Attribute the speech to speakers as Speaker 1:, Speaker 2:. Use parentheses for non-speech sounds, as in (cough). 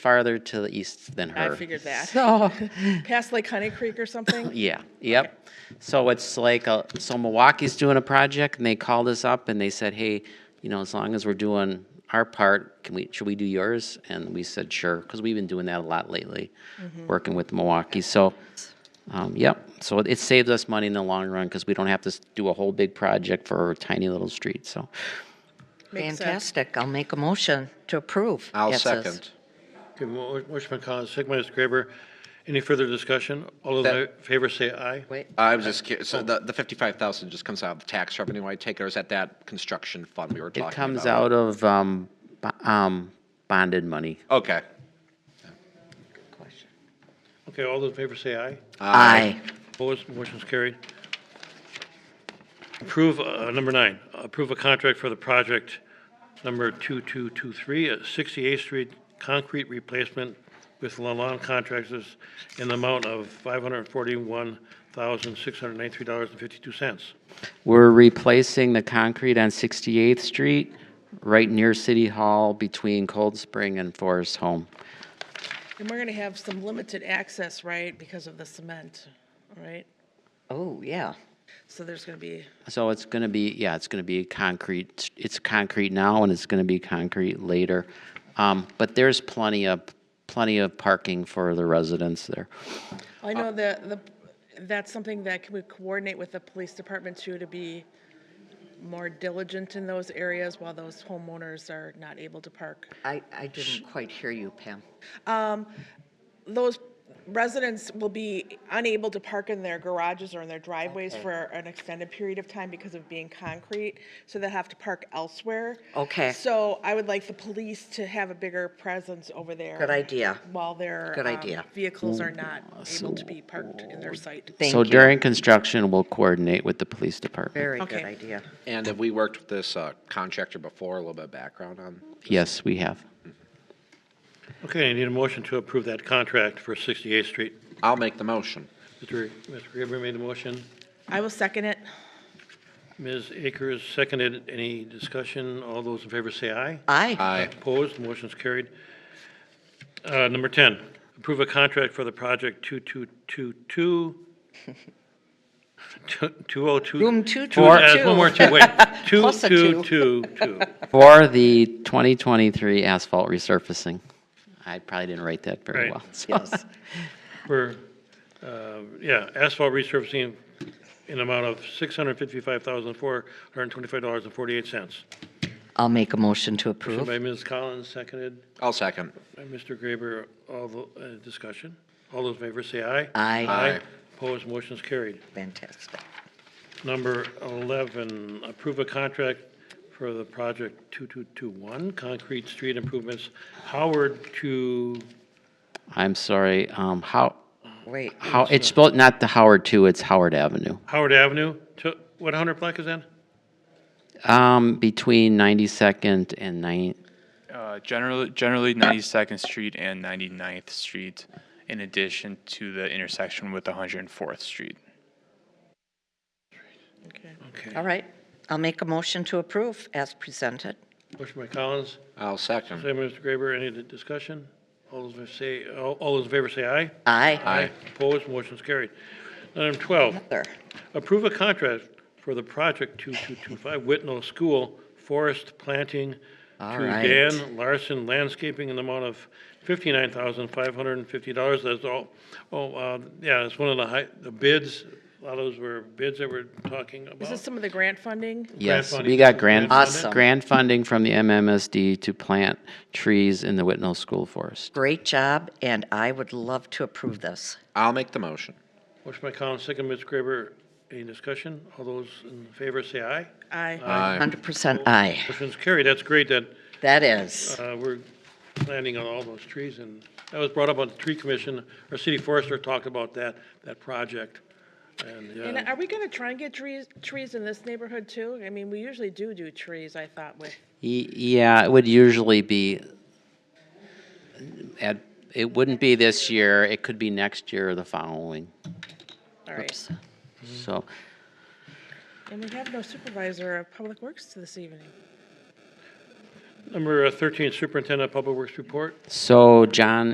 Speaker 1: farther to the east than
Speaker 2: I
Speaker 1: her.
Speaker 2: figured that.
Speaker 1: So,
Speaker 2: (laughs) Past Lake Honey Creek or something?
Speaker 1: yeah, yep. So it's like, a- so Milwaukee's doing a project and they called us up and they said, hey, you know, as long as we're doing our part, can we, should we do yours? And we said, sure, because we've been doing that a lot lately,
Speaker 2: Mm-hmm.
Speaker 1: working with Milwaukee. So, um, yep, so it- it saves us money in the long run because we don't have to s- do a whole big project for a tiny little street, so.
Speaker 2: Makes sense.
Speaker 3: Fantastic. I'll make a motion to approve.
Speaker 4: I'll
Speaker 3: Yes, yes.
Speaker 4: second.
Speaker 5: Okay, mo- motion by Collins, second by Mr. Graber. Any further discussion? All those in favor say aye.
Speaker 3: Wait,
Speaker 4: I was just, curious, so the, the 55,000 just comes out of the tax revenue I take, or is that that construction fund we were talking
Speaker 1: It
Speaker 4: about?
Speaker 1: comes out of, um, bo- um, bonded money.
Speaker 4: Okay.
Speaker 5: Okay, all those in favor say aye.
Speaker 3: aye.
Speaker 5: Opposed, motion's carried. Approve, uh, number nine, approve a contract for the project number 2223, uh, 68th Street Concrete Replacement with Lalonde Contractors in the amount of $541,693.52.
Speaker 1: We're replacing the concrete on 68th Street, right near City Hall, between Cold Spring and Forest Home.
Speaker 2: And we're going to have some limited access, right, because of the cement, all right?
Speaker 3: Oh, yeah.
Speaker 2: So there's going to be,
Speaker 1: So it's going to be, yeah, it's going to be concrete, it's concrete now, and it's going to be concrete later. Um, But there's plenty of, plenty of parking for the residents there.
Speaker 2: I know that, the, that's something that can we coordinate with the police department too, to be more diligent in those areas while those homeowners are not able to park.
Speaker 3: I, I didn't quite hear you, Pam.
Speaker 2: Those residents will be unable to park in their garages or in their driveways for an extended period of time because of being concrete, so they have to park elsewhere.
Speaker 3: Okay.
Speaker 2: So I would like the police to have a bigger presence over there.
Speaker 3: Good idea.
Speaker 2: While their.
Speaker 3: Good
Speaker 2: um,
Speaker 3: idea.
Speaker 2: Vehicles are not able to be parked in their site.
Speaker 3: Thank
Speaker 1: So
Speaker 3: you.
Speaker 1: during construction, we'll coordinate with the police department.
Speaker 3: Very good
Speaker 2: Okay.
Speaker 3: idea.
Speaker 4: And have we worked with this uh, contractor before? A little bit of background on?
Speaker 1: Yes, we have.
Speaker 5: Okay, I need a motion to approve that contract for 68th Street.
Speaker 4: I'll make the motion.
Speaker 5: Mr. Graber made the motion.
Speaker 2: I will second it.
Speaker 5: Ms. Akers seconded. Any discussion? All those in favor say aye.
Speaker 3: Aye.
Speaker 4: Aye.
Speaker 5: Opposed, motion's carried. Uh, Number 10, approve a contract for the project (laughs) 2222, 202.
Speaker 3: Room 222.
Speaker 5: Two- uh, One more, two, wait.
Speaker 3: (laughs) Plus a two.
Speaker 5: 2222.
Speaker 1: For the 2023 asphalt resurfacing. I probably didn't write that very
Speaker 5: Right.
Speaker 1: well. so.
Speaker 3: Yes.
Speaker 5: For, uh, yeah, asphalt resurfacing in amount of $655,425.48.
Speaker 3: I'll make a motion to
Speaker 5: Motion
Speaker 3: approve.
Speaker 5: by Ms. Collins, seconded
Speaker 4: I'll second.
Speaker 5: by Mr. Graber. All the, uh, discussion? All those in favor say aye.
Speaker 3: Aye.
Speaker 5: Aye. Opposed, motion's carried.
Speaker 3: Fantastic.
Speaker 5: Number 11, approve a contract for the project 2221, concrete street improvements, Howard to,
Speaker 1: (laughs) I'm sorry, um, how,
Speaker 3: Wait,
Speaker 1: How, it's spelled not the Howard two, it's Howard Avenue.
Speaker 5: Howard Avenue, to, what 100 block is that?
Speaker 1: Um, between ninety-second and nine,
Speaker 6: Uh, generally, generally 92nd Street and 99th Street, in addition to the intersection with 104th Street.
Speaker 3: all right. I'll make a motion to approve as presented.
Speaker 5: Motion by Collins,
Speaker 4: I'll second.
Speaker 5: second by Mr. Graber, any di- discussion? All those in favor say, all all those in favor say aye.
Speaker 3: Aye.
Speaker 4: Aye.
Speaker 5: Opposed, motion's carried. Item 12,
Speaker 3: Another.
Speaker 5: Approve a contract for the project 2225 Whitnell School Forest Planting
Speaker 3: All
Speaker 5: to
Speaker 3: right.
Speaker 5: Dan Larson Landscaping in the amount of $59,550. That's all, oh, uh, yeah, it's one of the high, the bids, a lot of those were bids that we're talking
Speaker 2: Is this
Speaker 5: about.
Speaker 2: some of the grant funding?
Speaker 1: yes,
Speaker 5: funding.
Speaker 1: we got grant,
Speaker 5: Grant
Speaker 3: funding? Awesome.
Speaker 1: grant funding from the MMSD to plant trees in the Whitnell School Forest.
Speaker 3: Great job, and I would love to approve this.
Speaker 4: I'll make the motion.
Speaker 5: Motion by Collins, second by Ms. Graber. Any discussion? All those in favor say aye.
Speaker 2: Aye.
Speaker 4: Aye.
Speaker 3: 100% aye.
Speaker 5: Motion's carried. That's great that
Speaker 3: That is.
Speaker 5: Uh, We're planting on all those trees, and that was brought up on the tree commission. Our city forester talked about that, that project. And,
Speaker 2: And
Speaker 5: uh,
Speaker 2: are we going to try and get trees, trees in this neighborhood too? I mean, we usually do do trees, I thought, with,
Speaker 1: Y- Yeah, it would usually be, at, it wouldn't be this year, it could be next year or the following,
Speaker 2: all right.
Speaker 3: Oops.
Speaker 1: so.
Speaker 2: And we have no supervisor of public works this evening.
Speaker 5: Number uh, 13, Superintendent Public Works Report.
Speaker 1: So John